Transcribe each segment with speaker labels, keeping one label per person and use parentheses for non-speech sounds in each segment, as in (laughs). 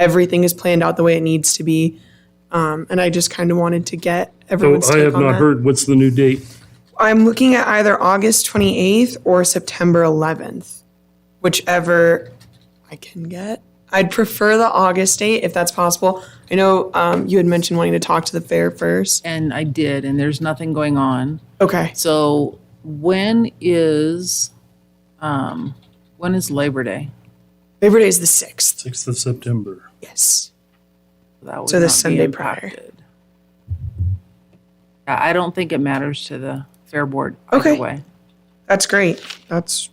Speaker 1: everything is planned out the way it needs to be. Um, and I just kind of wanted to get
Speaker 2: So
Speaker 1: everyone's
Speaker 2: I
Speaker 1: take
Speaker 2: have
Speaker 1: on
Speaker 2: not
Speaker 1: that.
Speaker 2: heard, what's the new date?
Speaker 1: I'm looking at either August 28th or September 11th, whichever I can get. I'd prefer the August date if that's possible. I know um, you had mentioned wanting to talk to the fair first.
Speaker 3: And I did, and there's nothing going on.
Speaker 1: Okay.
Speaker 3: So when is, um, when is Labor Day?
Speaker 1: Labor Day is the 6th.
Speaker 2: 6th of September.
Speaker 1: Yes.
Speaker 3: That would
Speaker 1: So the
Speaker 3: not be
Speaker 1: Sunday prior.
Speaker 3: impacted. I I don't think it matters to the Fair Board either
Speaker 1: Okay.
Speaker 3: way.
Speaker 1: That's great. That's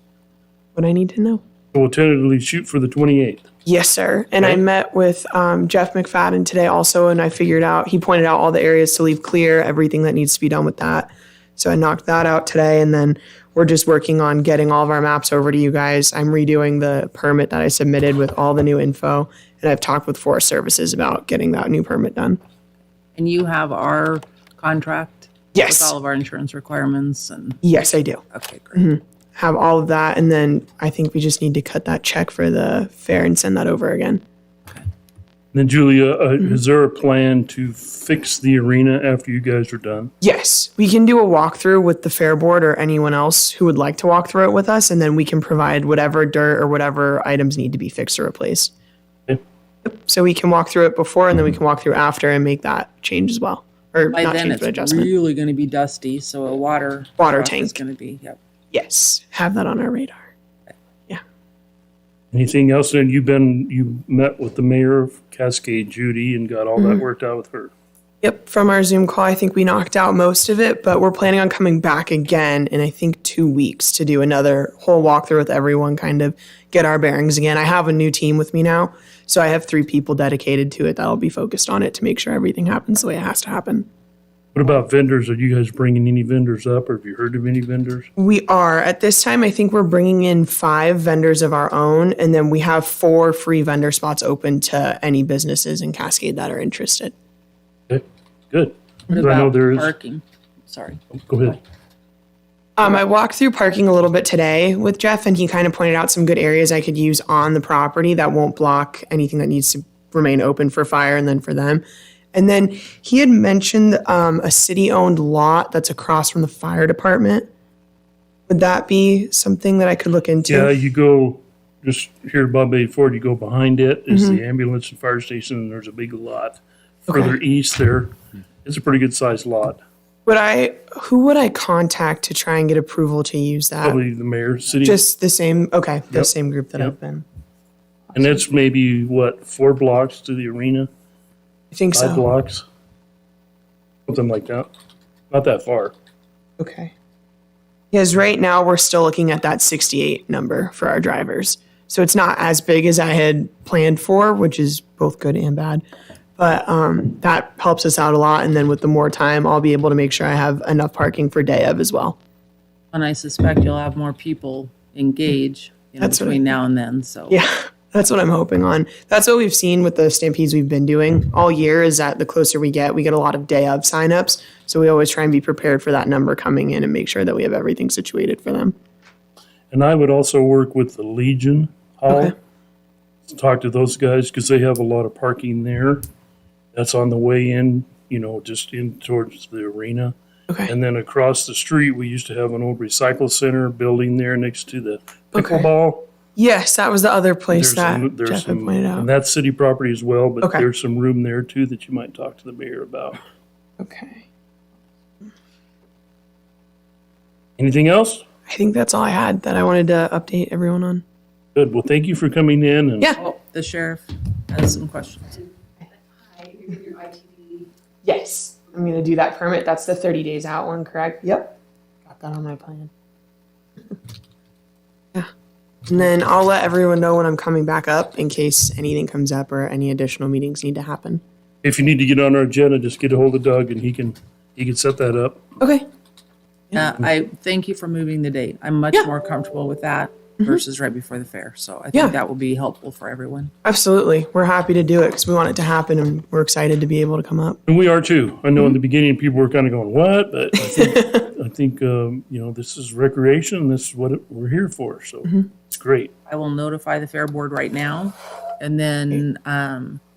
Speaker 1: what I need to know.
Speaker 2: We'll tentatively shoot for the 28th.
Speaker 1: Yes, sir. And I
Speaker 2: Okay.
Speaker 1: met with um, Jeff McFadden today also, and I figured out, he pointed out all the areas to leave clear, everything that needs to be done with that. So I knocked that out today, and then we're just working on getting all of our maps over to you guys. I'm redoing the permit that I submitted with all the new info, and I've talked with Forest Services about getting that new permit done.
Speaker 3: And you have our contract?
Speaker 1: Yes.
Speaker 3: With all of our insurance requirements and,
Speaker 1: Yes, I do.
Speaker 3: okay,
Speaker 1: Mm-hmm.
Speaker 3: great.
Speaker 1: Have all of that, and then I think we just need to cut that check for the fair and send that over again.
Speaker 2: Then Julia, uh, is there a plan to fix the arena after you guys are done?
Speaker 1: Yes, we can do a walkthrough with the fair board or anyone else who would like to walk through it with us, and then we can provide whatever dirt or whatever items need to be fixed or replaced.
Speaker 2: Okay.
Speaker 1: Yep, So we can walk through it before, and then we can walk through after and make that change as well, or
Speaker 3: By
Speaker 1: not
Speaker 3: then,
Speaker 1: change but
Speaker 3: it's
Speaker 1: adjustment.
Speaker 3: really going to be dusty, so a water.
Speaker 1: Water
Speaker 3: truck Is
Speaker 1: tank.
Speaker 3: going to be, yep.
Speaker 1: yes, have that on our radar.
Speaker 2: Anything else? And you've been, you met with the mayor of Cascade, Judy, and got all
Speaker 3: Mm-hmm.
Speaker 2: that worked out with her.
Speaker 1: Yep, from our Zoom call, I think we knocked out most of it, but we're planning on coming back again in I think two weeks to do another whole walkthrough with everyone, kind of get our bearings again. I have a new team with me now, so I have three people dedicated to it that'll be focused on it to make sure everything happens the way it has to happen.
Speaker 2: What about vendors? Are you guys bringing any vendors up or have you heard of any vendors?
Speaker 3: Mm.
Speaker 1: We are at this time, I think we're bringing in five vendors of our own, and then we have four free vendor spots open to any businesses in Cascade that are interested.
Speaker 2: Okay, good.
Speaker 3: What
Speaker 2: I know
Speaker 3: about
Speaker 2: there is,
Speaker 3: parking? Sorry.
Speaker 2: go ahead.
Speaker 1: Um, I walked through parking a little bit today with Jeff, and he kind of pointed out some good areas I could use on the property that won't block anything that needs to remain open for fire and then for them. And then he had mentioned um, a city owned lot that's across from the fire department. Would that be something that I could look into?
Speaker 2: Yeah, you go just here above Bay Ford, you go behind it is
Speaker 1: Mm-hmm.
Speaker 2: the ambulance and fire station, and there's a big lot. Further east there, it's a pretty good sized lot.
Speaker 1: Would I? Who would I contact to try and get approval to use that?
Speaker 2: Probably the mayor, city,
Speaker 1: Just the same. Okay, the
Speaker 2: Yep.
Speaker 1: same group that
Speaker 2: Yep.
Speaker 1: I've been.
Speaker 2: and that's maybe what, four blocks to the arena,
Speaker 1: I think
Speaker 2: five
Speaker 1: so.
Speaker 2: blocks? Something like that. Not that far.
Speaker 1: Okay. Because right now we're still looking at that 68 number for our drivers. So it's not as big as I had planned for, which is both good and bad. But um, that helps us out a lot. And then with the more time, I'll be able to make sure I have enough parking for day of as well. (laughs)
Speaker 3: And I suspect you'll have more people engage, you know,
Speaker 1: That's what I-
Speaker 3: between now and then, so.
Speaker 1: Yeah, that's what I'm hoping on. That's what we've seen with the stampedes we've been doing all year is that the closer we get, we get a lot of day of signups. So we always try and be prepared for that number coming in and make sure that we have everything situated for them.
Speaker 2: And I would also work with the Legion Hall.
Speaker 1: Okay.
Speaker 2: to Talk to those guys because they have a lot of parking there. That's on the way in, you know, just in towards the arena.
Speaker 1: Okay.
Speaker 2: And then across the street, we used to have an old recycle center building there next to the
Speaker 1: Okay.
Speaker 2: pickleball.
Speaker 1: Yes, that was the other place
Speaker 2: There's some,
Speaker 1: that
Speaker 2: there's
Speaker 1: Jeff had
Speaker 2: some,
Speaker 1: pointed
Speaker 2: and
Speaker 1: out.
Speaker 2: that's city property as well, but
Speaker 1: Okay.
Speaker 2: there's some room there too that you might talk to the mayor about.
Speaker 1: Okay.
Speaker 2: Anything else?
Speaker 1: I think that's all I had that I wanted to update everyone on.
Speaker 2: Good. Well, thank you for coming in and.
Speaker 1: Yeah.
Speaker 3: Oh, the sheriff has some questions.
Speaker 1: Yes, I'm gonna do that permit. That's the 30 days out one, correct? Yep. Got that on my plan. (laughs) yeah. And then I'll let everyone know when I'm coming back up in case anything comes up or any additional meetings need to happen.
Speaker 2: If you need to get on our agenda, just get a hold of Doug and he can, he can set that up.
Speaker 1: Okay.
Speaker 3: Uh, I thank you for moving the date. I'm much
Speaker 1: Yeah. Mm-hmm.
Speaker 3: more comfortable with that versus right before the fair. So I
Speaker 1: Yeah.
Speaker 3: think that will be helpful for everyone.
Speaker 1: Absolutely. We're happy to do it because we want it to happen and we're excited to be able to come up.
Speaker 2: And we are too. I know in the
Speaker 1: Mm-hmm.
Speaker 2: beginning, people were kind of going, what? But I think,
Speaker 1: (laughs)
Speaker 2: I think, um, you know, this is
Speaker 1: Mm-hmm.
Speaker 2: recreation. This is what it- we're here for. So it's great.
Speaker 3: I will notify the fair board right now And then, um,